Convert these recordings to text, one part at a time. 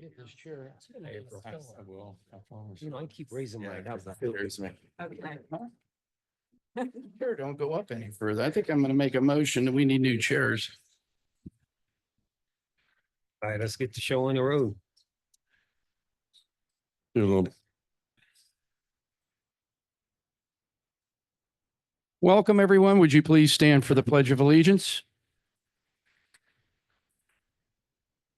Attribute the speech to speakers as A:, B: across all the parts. A: get this chair.
B: I will. I promise.
C: You know, I keep raising
B: Yeah,
C: mine up.
B: 'cause there's me.
D: Okay,
A: Chair don't go up any further. I think I'm gonna make a motion that we need new chairs.
C: All right, let's get the show on the road.
E: Do a little-
A: Welcome, everyone. Would you please stand for the Pledge of Allegiance?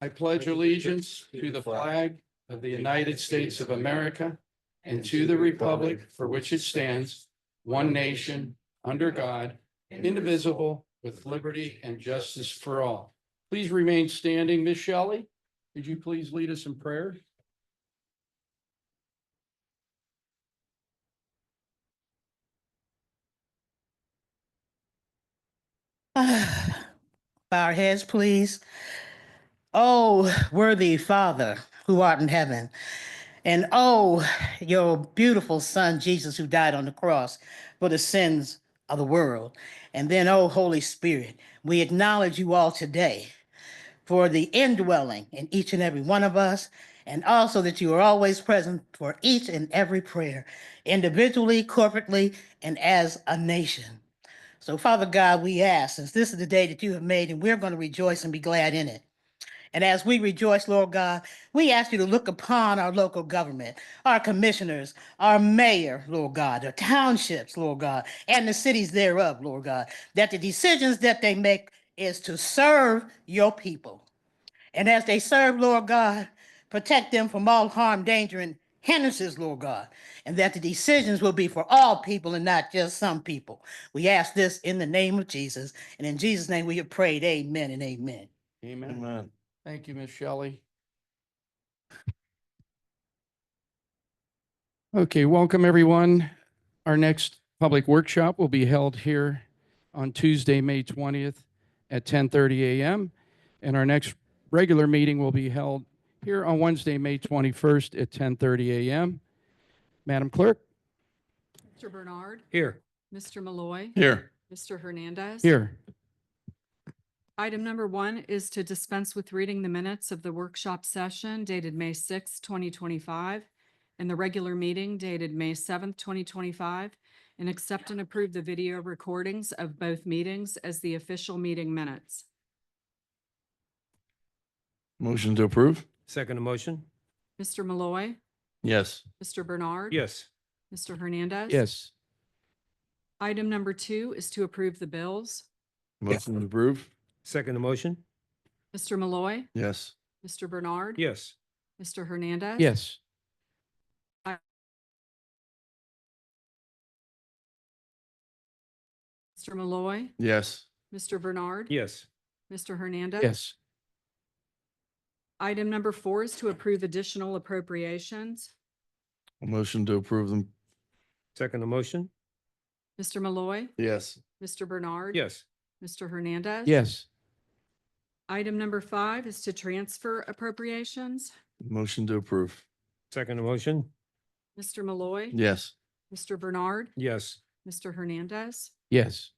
A: I pledge allegiance to the flag of the United States of America and to the republic for which it stands, one nation, under God, indivisible, with liberty and justice for all. Please remain standing. Ms. Shelley, could you please lead us in prayer?
F: Bow our heads, please. Oh, worthy Father who art in heaven, and oh, your beautiful Son, Jesus, who died on the cross for the sins of the world. And then, oh, Holy Spirit, we acknowledge you all today for the indwelling in each and every one of us, and also that you are always present for each and every prayer, individually, corporately, and as a nation. So, Father God, we ask, since this is the day that you have made, and we're going to rejoice and be glad in it. And as we rejoice, Lord God, we ask you to look upon our local government, our commissioners, our mayor, Lord God, our townships, Lord God, and the cities thereof, Lord God, that the decisions that they make is to serve your people. And as they serve, Lord God, protect them from all harm, danger, and hindrances, Lord God, and that the decisions will be for all people and not just some people. We ask this in the name of Jesus, and in Jesus' name we have prayed, amen and amen.
A: Amen.
E: Amen.
A: Thank you, Ms. Shelley. Okay, welcome everyone. Our next public workshop will be held here on Tuesday, May 20th at 10:30 a.m. And our next regular meeting will be held here on Wednesday, May 21st at 10:30 a.m. Madam Clerk,
D: Mr. Bernard,
C: Here,
D: Mr. Malloy,
E: Here,
D: Mr. Hernandez.
A: here.
D: Item number one is to dispense with reading the minutes of the workshop session dated May sixth, twenty twenty-five, and the regular meeting dated May seventh, twenty twenty-five, and accept and approve the video recordings of both meetings as the official meeting minutes.
E: motion to approve?
C: second motion?
D: Mr. Malloy,
E: Yes.
D: Mr. Bernard.
C: Yes.
D: Mr. Hernandez.
A: Yes,
D: Item number two is to approve the bills.
E: Motion to approve?
C: Second motion?
D: Mr. Malloy,
E: Yes.
D: Mr. Bernard.
C: Yes.
D: Mr. Hernandez.
A: yes.
D: Mr. Malloy,
E: Yes.
D: Mr. Bernard.
C: Yes.
D: Mr. Hernandez.
A: Yes,
D: Item number four is to approve additional appropriations.
E: Motion to approve them?
C: Second motion?
D: Mr. Malloy,
E: Yes.
D: Mr. Bernard.
C: Yes.
D: Mr. Hernandez.
A: yes.
D: Item number five is to transfer appropriations.
E: Motion to approve?
C: Second motion?
D: Mr. Malloy.
E: Yes.
D: Mr. Bernard.
C: Yes.
D: Mr. Hernandez.
A: Yes,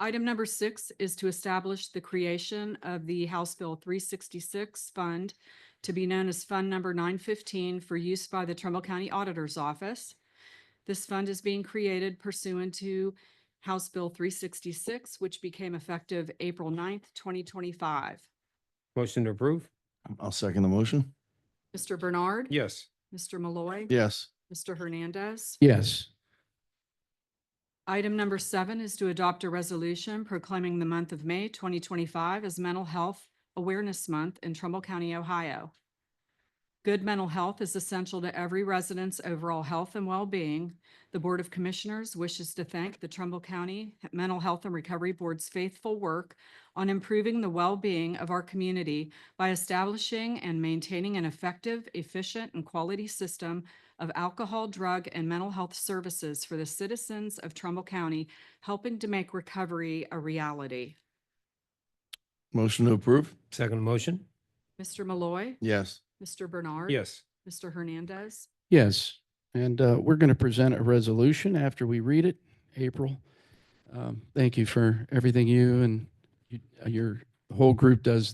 D: Item number six is to establish the creation of the House Bill three sixty-six fund to be known as Fund Number nine fifteen for use by the Trumbull County Auditor's Office. This fund is being created pursuant to House Bill three sixty-six, which became effective April 9th, twenty twenty-five.
C: Motion to approve?
E: I'll second the motion?
D: Mr. Bernard.
C: Yes.
D: Mr. Malloy.
E: Yes.
D: Mr. Hernandez.
A: yes.
D: Item number seven is to adopt a resolution proclaiming the month of May twenty twenty-five as Mental Health Awareness Month in Trumbull County, Ohio. Good mental health is essential to every resident's overall health and well-being. The Board of Commissioners wishes to thank the Trumbull County Mental Health and Recovery Board's faithful work on improving the well-being of our community by establishing and maintaining an effective, efficient, and quality system of alcohol, drug, and mental health services for the citizens of Trumbull County, helping to make recovery a reality.
E: Motion to approve?
C: Second motion?
D: Mr. Malloy,
E: Yes.
D: Mr. Bernard.
C: Yes.
D: Mr. Hernandez.
A: Yes, and uh, we're going to present a resolution after we read it, April. Um, Thank you for everything you and you- your whole group does